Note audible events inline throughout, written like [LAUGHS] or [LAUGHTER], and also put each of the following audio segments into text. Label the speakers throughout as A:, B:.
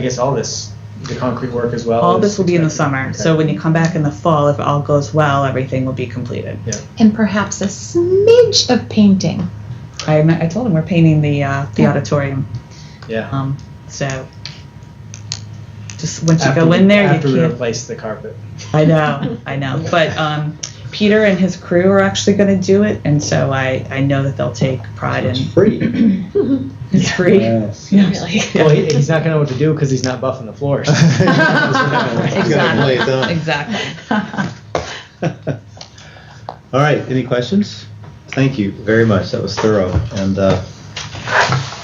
A: I guess all this, the concrete work as well.
B: All
A: is
B: this will be in the
A: expected.
B: summer, so when you come back in the fall, if all goes well, everything will be completed.
C: and perhaps a smidge of painting.
B: I, me- I told him we're painting the uh, the auditorium,
A: Yeah.
B: um, so just once you
A: After
B: go
A: we-
B: in there, you
A: After we
B: can't.
A: replace the carpet.
B: I know,
A: [LAUGHS]
B: I know. But um, Peter and his crew are actually going to do it, and so I, I know that they'll take pride in
D: It's free. [LAUGHS]
B: it's [LAUGHS] free.
D: Yes.
B: Yeah.
C: Really.
A: Well, he, he's not gonna know what to do because he's not buffing the
D: [LAUGHS]
A: floors.
D: You gotta play it down.
B: Exactly.
C: [LAUGHS]
D: All right, any questions? Thank you very much, that was thorough and, uh,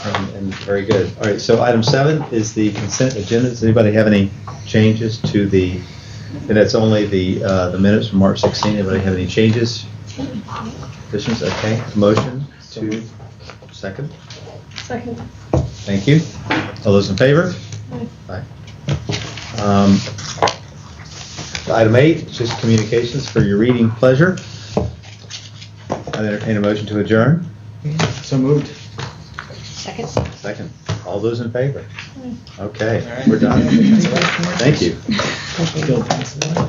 D: and- and very good. All right, so item seven is the consent agenda. Does anybody have any changes to the, and that's only the, uh, the minutes from March 16. Anybody have any changes? Additions, okay, motion to second?
E: Second.
D: Thank you. All those in favor? Aye. Um, Item eight, is just communications for your reading pleasure. I entertain a motion to adjourn.
A: So moved.
E: Second.
D: Second. All those in favor? Okay,
A: All right.
D: we're done.
A: That's all right.
D: Thank you.
A: Still pencil.